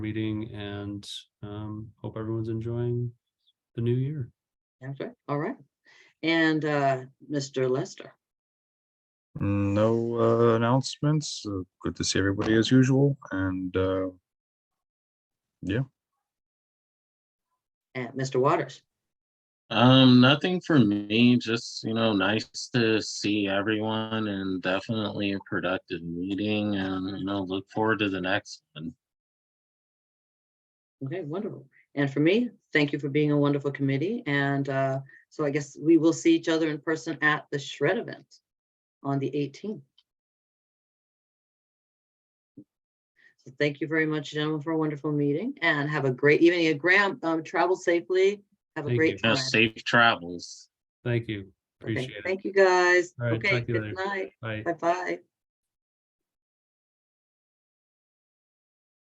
meeting and um, hope everyone's enjoying the new year. Okay, all right. And uh, Mr. Lester, No uh, announcements. Uh, Good to see everybody as usual and uh, and Mr. Waters, Um, nothing for me, just, you know, nice to see everyone and definitely a productive meeting and, you know, look forward to the next one. okay, wonderful. And for me, thank you for being a wonderful committee. And uh, so I guess we will see each other in person at the shred event on the 18th. So thank you very much, gentlemen, for a wonderful meeting and have a great evening. And Graham, um, travel safely. Have a Thank great you. Now, time. safe travels. Thank you. Okay, Appreciate it. Thank you, guys. All right, Okay, talk to you good later. night. Bye. Bye-bye.